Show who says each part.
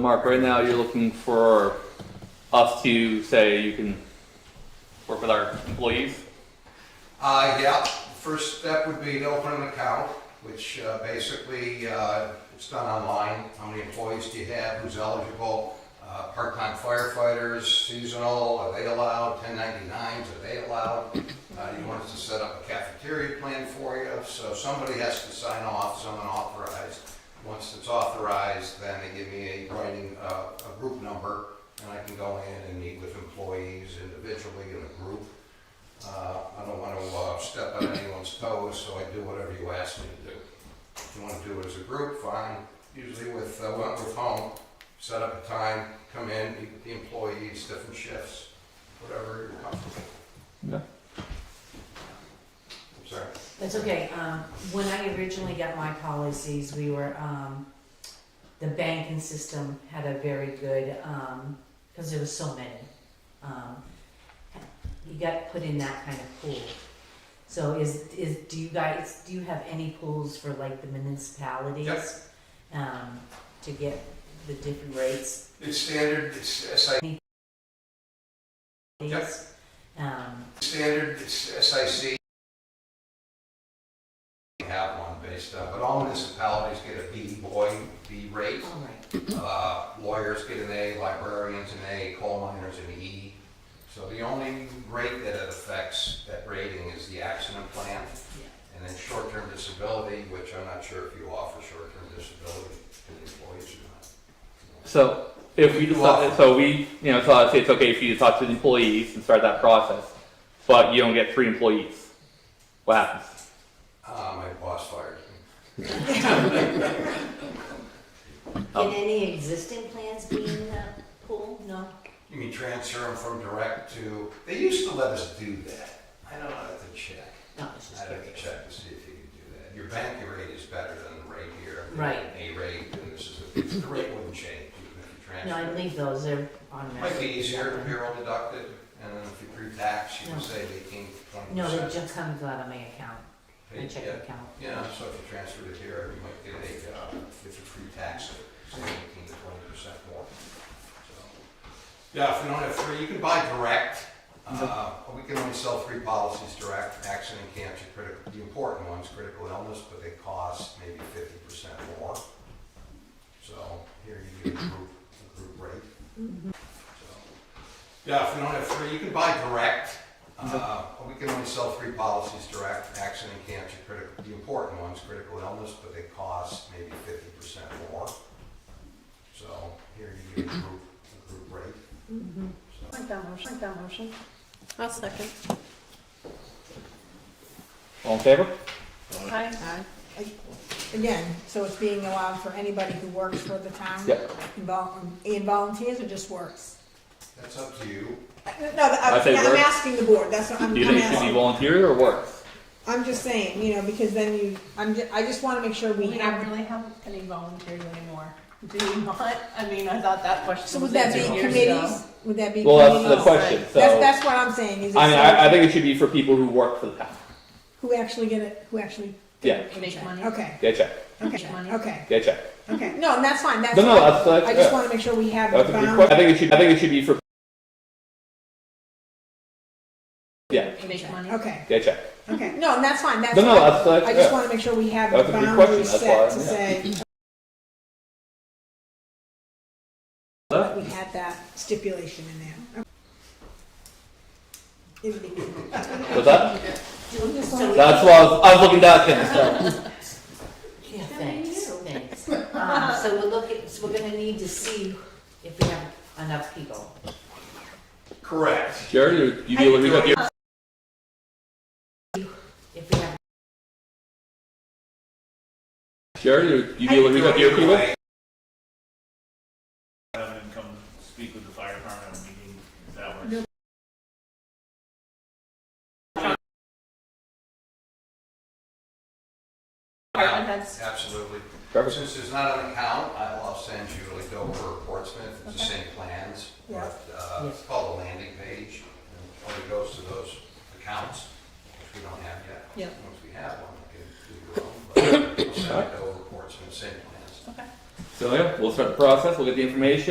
Speaker 1: Mark, right now you're looking for us to say you can work with our employees?
Speaker 2: Uh, yeah, first step would be to open an account, which uh, basically, uh, it's done online. How many employees do you have, who's eligible? Uh, Part-time firefighters, seasonal, are they allowed? 1099s, are they allowed? Uh, You want us to set up a cafeteria plan for you, so somebody has to sign off, someone authorized. Once it's authorized, then they give me a writing, uh, a group number, and I can go in and meet with employees individually in a group. Uh, I don't want to step on anyone's toes, so I do whatever you ask me to do. If you want to do it as a group, fine. Usually with uh, Wentworth Home, set up a time, come in, meet with the employees, different shifts, whatever you're comfortable.
Speaker 1: Yeah.
Speaker 2: I'm sorry.
Speaker 3: That's okay, um, when I originally got my policies, we were, um, the banking system had a very good, um, cause there was so many. Um, you got put in that kind of pool. So is, is, do you guys, do you have any pools for like the municipalities?
Speaker 2: Yep.
Speaker 3: Um, to get the different rates?
Speaker 2: It's standard, it's SIC, Yep.
Speaker 3: Um,
Speaker 2: standard, it's SIC. We Have one based on, but all municipalities get a B boy, B rate.
Speaker 3: all right.
Speaker 2: Uh, Lawyers get an A, librarians an A, coal miners an E. So the only rate that it affects, that rating, is the accident plan. And then short-term disability, which I'm not sure if you offer short-term disability to the employees or not.
Speaker 1: So if we decide, so we, you know, so I'd say it's okay for you to talk to the employees and start that process, but you don't get three employees. What happens?
Speaker 2: Uh, My boss fired me.
Speaker 1: Oh.
Speaker 4: Can any existing plans be in the pool? No?
Speaker 2: You mean transfer them from direct to, they used to let us do that. I don't know, I have to check.
Speaker 3: No, it's just
Speaker 2: I'd have to
Speaker 3: curious.
Speaker 2: check to see if you can do that. Your bank rate is better than the rate here.
Speaker 3: Right.
Speaker 2: A rate, and this is, a- the rate wouldn't change even if you transfer.
Speaker 3: No, I leave those, they're automatic.
Speaker 2: Might be easier, payroll deducted, and then if you pre-tax, you can say eighteen, twenty
Speaker 3: No, they
Speaker 2: percent.
Speaker 3: just comes out of my account, my checking account.
Speaker 2: Yeah, so if you transfer it here, you might get a, uh, if you pre-tax, it, say eighteen to twenty percent more. So, Yeah, if you don't have three, you can buy direct, uh, we can only sell three policies direct, accident, cancer, critical, the important ones, critical illness, but they cost maybe fifty percent more. So here you get a group, a group rate. So, Yeah, if you don't have three, you can buy direct. Uh, We can only sell three policies direct, accident, cancer, critical, the important ones, critical illness, but they cost maybe fifty percent more. So here you get a group, a group rate. So,
Speaker 4: Make that motion, make that motion.
Speaker 5: I'll second.
Speaker 1: All in favor?
Speaker 5: Aye.
Speaker 6: Again, so it's being allowed for anybody who works for the town?
Speaker 1: Yep.
Speaker 6: And vol- And volunteers or just works?
Speaker 2: That's up to you.
Speaker 6: Uh, No, I-
Speaker 1: I say
Speaker 6: I'm
Speaker 1: works.
Speaker 6: asking the board, that's what I'm,
Speaker 1: Do you
Speaker 6: I'm
Speaker 1: think it should be
Speaker 6: asking.
Speaker 1: volunteer or works?
Speaker 6: I'm just saying, you know, because then you, I'm, ju- I just wanna make sure we
Speaker 5: We don't
Speaker 6: have,
Speaker 5: really have any volunteers anymore, do we not? I mean, I thought that question was.
Speaker 6: so would that be
Speaker 5: answered years ago.
Speaker 6: committees? Would that be committees?
Speaker 1: Well, that's the
Speaker 5: Community.
Speaker 1: question, so,
Speaker 6: That's,
Speaker 1: I
Speaker 6: that's what I'm saying, is
Speaker 1: mean, I, I
Speaker 6: it,
Speaker 1: think it should be for people who work for the town.
Speaker 6: who actually get it, who actually?
Speaker 1: Yeah,
Speaker 5: Make money.
Speaker 6: Okay,
Speaker 1: get a check,
Speaker 6: okay,
Speaker 5: money.
Speaker 6: okay,
Speaker 1: get a check.
Speaker 6: okay, no, and that's fine, that's.
Speaker 1: No, no,
Speaker 6: fine.
Speaker 1: that's- that's-
Speaker 6: I just
Speaker 1: yeah.
Speaker 6: wanna make sure we have
Speaker 1: That's
Speaker 6: the
Speaker 1: a good
Speaker 6: bounds.
Speaker 1: question. I think it should, I think it should be for. Yeah,
Speaker 5: Make money.
Speaker 6: Okay,
Speaker 1: get a check.
Speaker 6: okay, no, and that's fine, that's.
Speaker 1: No, no,
Speaker 6: fine.
Speaker 1: that's, that's,
Speaker 6: I just
Speaker 1: yeah.
Speaker 6: wanna make sure we have
Speaker 1: That's
Speaker 6: the
Speaker 1: a good question,
Speaker 6: boundaries
Speaker 1: that's
Speaker 6: set
Speaker 1: why,
Speaker 6: to
Speaker 1: yeah.
Speaker 6: say,
Speaker 1: Huh?
Speaker 6: we had that stipulation in there. It'd be good.
Speaker 1: What's that?
Speaker 6: Just
Speaker 3: So-
Speaker 6: like-
Speaker 1: That's why I was, I was looking down at him, so.
Speaker 3: Yeah, thanks, thanks. Um, so we'll look at, so we're gonna need to see if we have enough people.
Speaker 2: Correct.
Speaker 1: Jared, you- you deal with, you got your-
Speaker 3: If we have,
Speaker 1: Jared, you- you deal with, you got your people?
Speaker 7: Have him come speak with the fire department at a meeting, if that works.
Speaker 5: Department heads.
Speaker 2: Absolutely.
Speaker 1: Perfect.
Speaker 2: Since there's not an account, I- I'll send you like Dover or Portsmouth, it's the
Speaker 5: Okay.
Speaker 2: same plans.
Speaker 6: Yeah.
Speaker 2: But uh, it's called a landing page, and it only goes to those accounts, which we don't have yet.
Speaker 5: Yeah.
Speaker 2: Once we have one, we can do your own, but I'll send it to Dover, Portsmouth, same plans.
Speaker 5: Okay.
Speaker 1: So yeah, we'll start the process, we'll get the information,